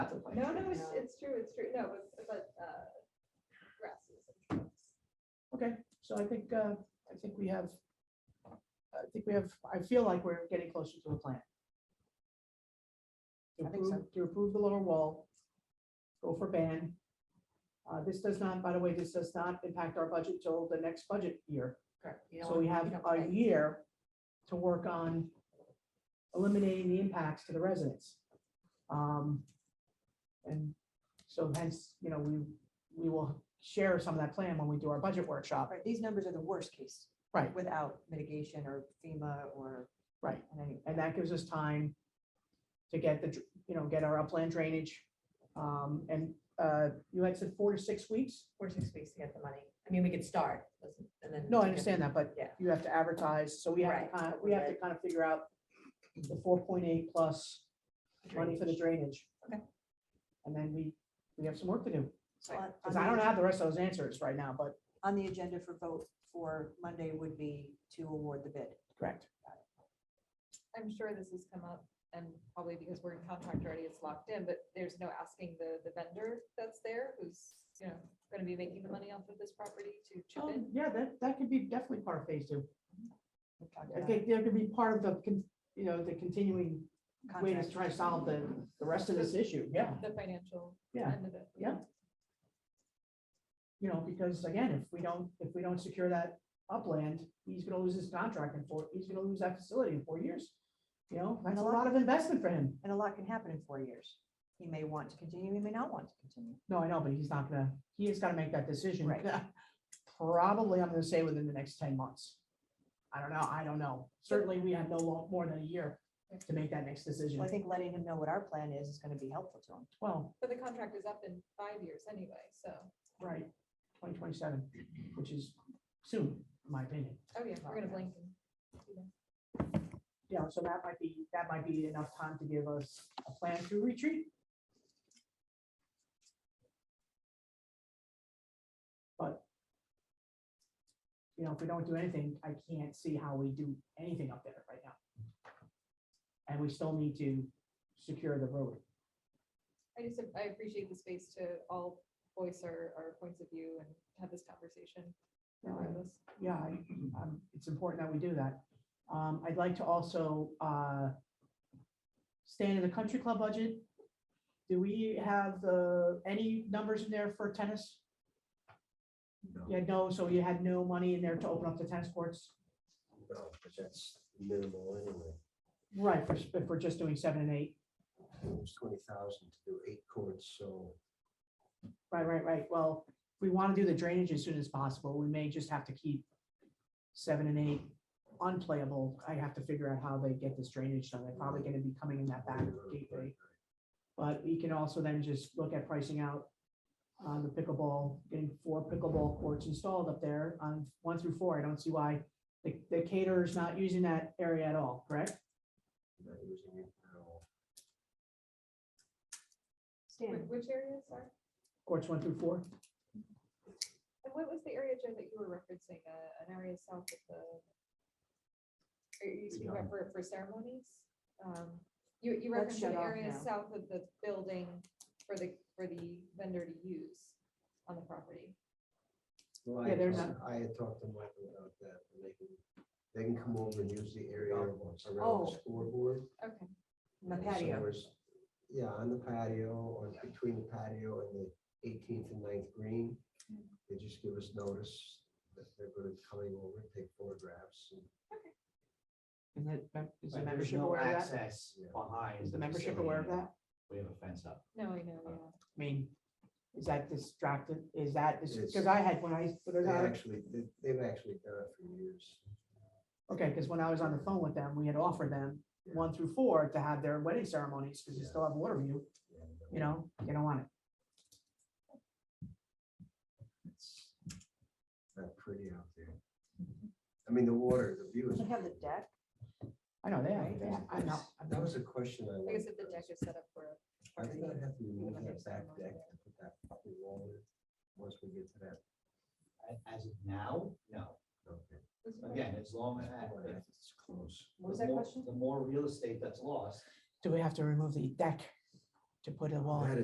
to complain. No, no, it's, it's true, it's true, no, but, but, uh, grasses and shrubs. Okay, so I think, uh, I think we have, I think we have, I feel like we're getting closer to a plan. To I think so. approve- To approve the lower wall, go for ban. Uh, This does not, by the way, this does not impact our budget till the next budget year. Correct. You So don't- we you have don't a pay. year to work on eliminating the impacts to the residents. Um, And so hence, you know, we, we will share some of that plan when we do our budget workshop. Right, these numbers are the worst case. Right. Without mitigation or FEMA or. Right. and any- And that gives us time to get the, dr- you know, get our upland drainage. Um, And uh, you had said four to six weeks? Four, to six weeks to get the money. I mean, we could start, listen, and then. No, I understand that, but Yeah. you have to advertise, so we have to, Right, kind but we have to we're- kind of figure out the four point eight plus money for the drainage. Okay. And then we, we have some work to do, So on- because on I don't the- have the rest of those answers right now, but. On the agenda for vote for Monday would be to award the bid. Correct. I'm sure this has come up and probably because we're in contract already, it's locked in, but there's no asking the, the vendor that's there who's, you know, gonna be making the money off of this property to chip in. Um, Yeah, that, that could be definitely part of phase two. We've talked I about think there could be part of the, con- you know, the continuing way to contract. try to solve the, the rest of this issue, yeah. The financial Yeah, end of it. yeah. you know, because again, if we don't, if we don't secure that upland, he's gonna lose his contract in four, he's gonna lose that facility in four years. You know, that's a lot of investment for him. And a lot can happen in four years. He may want to continue, he may not want to continue. No, I know, but he's not gonna, he has gotta make that decision. Right. Probably, I'm gonna say within the next ten months. I don't know, I don't know. Certainly, we have no long, more than a year to make that next decision. Well, I think letting him know what our plan is is going to be helpful to him. Well, But the contract is up in five years anyway, so, right, twenty twenty-seven, which is soon, in my opinion. oh yeah, we're gonna blink. and- you know, so that might be, that might be enough time to give us a plan to retreat. But you know, if we don't do anything, I can't see how we do anything up there right now. And we still need to secure the road. I just, I appreciate the space to all voice our, our points of view and have this conversation regardless. yeah, I- um, it's important that we do that. Um, I'd like to also, uh, stand in the country club budget. Do we have, uh, any numbers in there for tennis? Yeah, no, so you had no money in there to open up the tennis courts? No, because that's minimal anyway. Right, for, if we're just doing seven and eight. It was twenty thousand to do eight courts, so Right, right, right. Well, if we want to do the drainage as soon as possible, we may just have to keep seven and eight unplayable. I have to figure out how they get this drainage done. They're probably gonna be coming in that back gateway. But we can also then just look at pricing out on the pickleball, getting four pickleball courts installed up there on one through four. I don't see why the, the caterer's not using that area at all, correct? not using it at all. Stan, Wh- Which areas are, Courts one through four. and what was the area, Joe, that you were referencing, uh, an area south of the? Are you speaking about for, for ceremonies? Um, You, you That's referenced an shut off area now. south of the building for the, for the vendor to use on the property. Well, I Yeah, they're had- I had talked to Michael about that, and they can, they can come over and use the area around Oh. the scoreboard. Okay, the So patio. there's- Yeah, on the patio, or between the patio and the eighteenth and 9th green. They just give us notice that they're gonna be coming over, take photographs. and- Is that, is the But there's membership no aware of that? access Yeah. behind. Is the membership facility. aware of that? We have a fence up. no, I know, yeah. I mean, is that distracted? Is that, because It's- I had, when I, when They I- actually, they- they've actually done it for years. okay, because when I was on the phone with them, we had offered them Yeah. one through four to have their wedding ceremonies, because you Yeah. still have water view, and, uh, you know, they don't want it. It's Not pretty out there. I mean, the water, the view is. Doesn't have the deck. I know, they Right. have, they have- I know. I That know. was a question I. I guess if the wanted to deck ask. is set up for a I party. think I'd have to remove Wouldn't that have back someone deck there. and put that fucking wall in, once we get to that. A- As of now, no. Okay. Again, as long as. Yeah, if- It's close. What was the that more- question? The more real estate that's lost, Do we have to remove the deck to put a wall? in? That